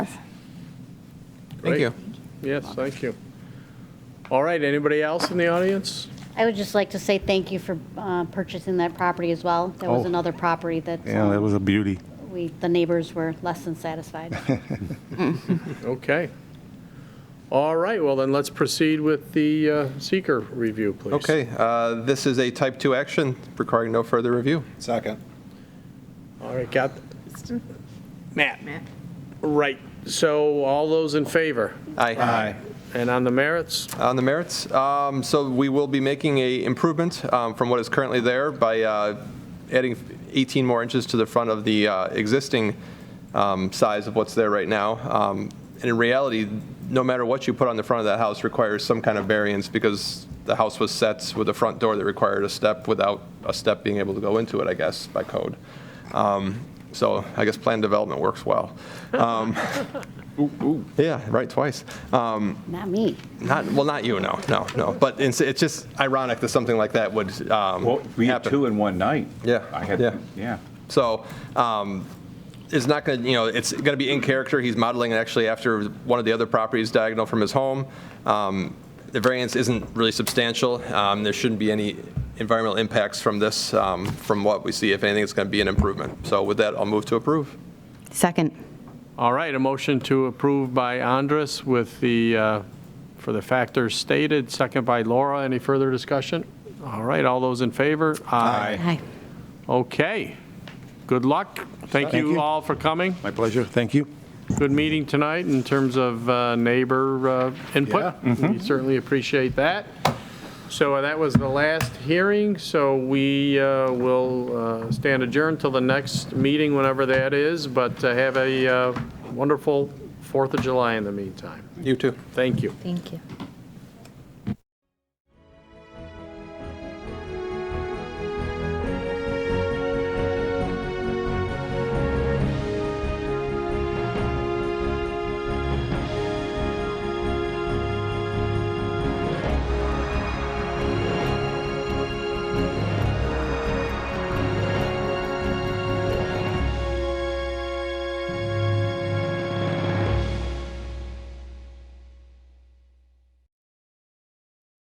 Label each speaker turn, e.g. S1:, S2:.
S1: Thank
S2: Great.
S1: you.
S2: Yes, thank you. All right, anybody else in the audience?
S3: I would just like to say thank you for uh, purchasing that property as well. That was
S4: Oh.
S3: another property that
S4: Yeah, that
S3: um,
S4: was a beauty.
S3: we, the neighbors were less than satisfied.
S2: Okay. All right, well, then let's proceed with the uh, seeker review, please.
S1: Okay, uh, this is a type 2 action requiring no further review.
S5: Second.
S2: All right, got, Matt. Right, so all those in favor?
S1: Aye. Uh,
S2: And on the merits?
S1: On the merits, um, so we will be making a improvement um, from what is currently there by uh, adding 18 more inches to the front of the uh, existing um, size of what's there right now. Um, And in reality, no matter what you put on the front of that house requires some kind of variance because the house was set with a front door that required a step without a step being able to go into it, I guess, by code. Um, So I guess plan development works well. Um, Yeah, right, twice. Um,
S3: Not me.
S1: not, well, not you, no, no, no. But it's, it's just ironic that something like that would um,
S6: Well, we had
S1: happen.
S6: two in one night.
S1: Yeah,
S6: I had,
S1: yeah.
S6: yeah.
S1: So um, it's not going to, you know, it's going to be in character. He's modeling it actually after one of the other properties diagonal from his home. Um, the variance isn't really substantial. Um, there shouldn't be any environmental impacts from this, um, from what we see. If anything, it's going to be an improvement. So with that, I'll move to approve.
S7: Second.
S2: All right, a motion to approve by Andres with the, uh, for the factors stated, second by Laura. Any further discussion? All right, all those in favor?
S7: Hi.
S2: Okay. Good luck. Thank
S4: Thank
S2: you
S4: you.
S2: all for coming.
S4: My pleasure. Thank you.
S2: Good meeting tonight in terms of uh, neighbor uh, input. We certainly appreciate that. So uh, that was the last hearing, so we uh, will uh, stand adjourned till the next meeting, whenever that is, but uh, have a uh, wonderful Fourth of July in the meantime.
S1: You too.
S2: Thank you.
S7: Thank you.